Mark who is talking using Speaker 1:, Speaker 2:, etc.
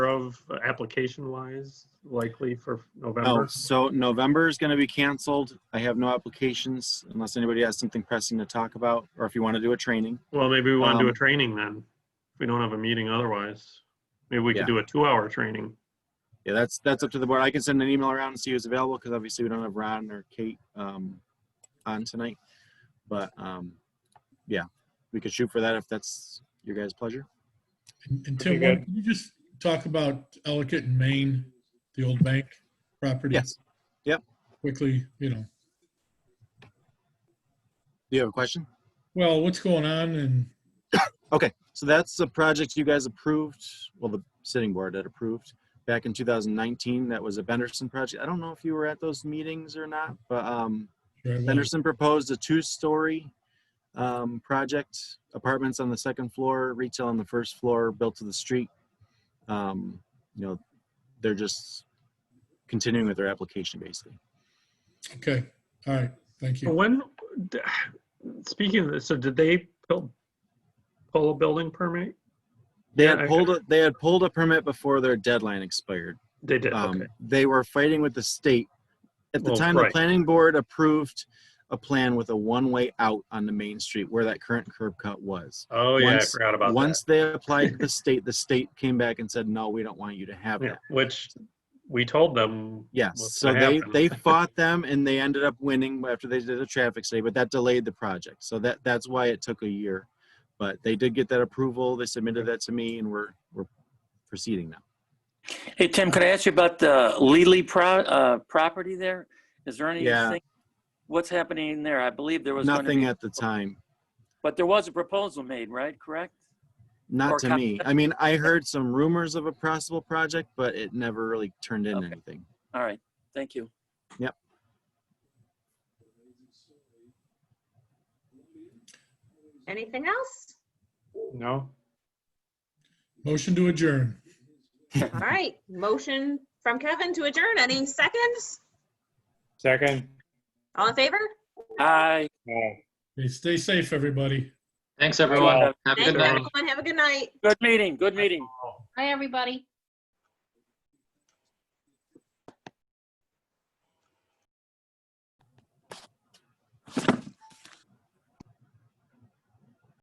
Speaker 1: of application wise likely for
Speaker 2: No,
Speaker 1: November?
Speaker 2: Oh, so November is gonna be canceled. I have no applications unless anybody has something pressing to talk about, or if you want to do a training.
Speaker 1: Well, maybe we want to do a
Speaker 2: Um,
Speaker 1: training then. If we don't have a meeting otherwise, maybe we
Speaker 2: Yeah.
Speaker 1: could do a two hour training.
Speaker 2: Yeah, that's, that's up to the board. I can send an email around and see who's available, because obviously we don't have Ron or Kate, um, on tonight. But, um, yeah, we could shoot for that if that's your guys' pleasure.
Speaker 3: And Tim,
Speaker 1: Okay, good.
Speaker 3: can you just talk about Ellicott in Maine, the old bank property?
Speaker 2: Yes. Yep.
Speaker 3: Quickly, you know,
Speaker 2: Do you have a question?
Speaker 3: well, what's going on and,
Speaker 2: Okay, so that's the project you guys approved, well, the sitting board had approved back in 2019. That was a Benderson project. I don't know if you were at those meetings or not, but, um,
Speaker 3: Sure, I will.
Speaker 2: Henderson proposed a two-story um, project, apartments on the second floor, retail on the first floor, built to the street. Um, You know, they're just continuing with their application, basically.
Speaker 3: okay, all right, thank you.
Speaker 1: When, d- speaking of this, so did they pull, pull a building permit?
Speaker 2: They
Speaker 1: Yeah,
Speaker 2: had
Speaker 1: I-
Speaker 2: pulled, a- they had pulled a permit before their deadline expired.
Speaker 1: They did,
Speaker 2: Um,
Speaker 1: okay.
Speaker 2: They were fighting with the state. At the
Speaker 1: Well,
Speaker 2: time, the
Speaker 1: right.
Speaker 2: planning board approved a plan with a one-way out on the main street where that current curb cut was.
Speaker 1: Oh, yeah, I
Speaker 2: once-
Speaker 1: forgot about that.
Speaker 2: Once they applied to the state, the state came back and said, no, we don't want you to have
Speaker 1: Yeah,
Speaker 2: that.
Speaker 1: which we told them.
Speaker 2: Yes,
Speaker 1: what's
Speaker 2: so
Speaker 1: gonna
Speaker 2: they,
Speaker 1: happen.
Speaker 2: they fought them and they ended up winning after they did a traffic study, but that delayed the project. So that, that's why it took a year. But they did get that approval. They submitted that to me and we're, we're proceeding now.
Speaker 4: Hey, Tim, can I ask you about the Lely pro, uh, property there? Is there
Speaker 2: Yeah.
Speaker 4: anything, what's happening there? I believe there was going to
Speaker 2: Nothing
Speaker 4: be,
Speaker 2: at the time,
Speaker 4: but there was a proposal made, right? Correct?
Speaker 2: not
Speaker 4: Or
Speaker 2: to
Speaker 4: com-
Speaker 2: me. I mean, I heard some rumors of a possible project, but it never really turned into
Speaker 4: Okay.
Speaker 2: anything.
Speaker 4: All right, thank you.
Speaker 5: Anything else?
Speaker 1: No?
Speaker 3: Motion to adjourn.
Speaker 5: All right, motion from Kevin to adjourn. Any seconds?
Speaker 1: Second?
Speaker 5: All in favor?
Speaker 4: Aye.
Speaker 3: Hey, Stay safe, everybody.
Speaker 6: Thanks, everyone. Have a
Speaker 5: Thank
Speaker 6: good
Speaker 5: you,
Speaker 6: night.
Speaker 5: everyone. Have a good night.
Speaker 4: Good meeting, good meeting.
Speaker 7: Hi, everybody.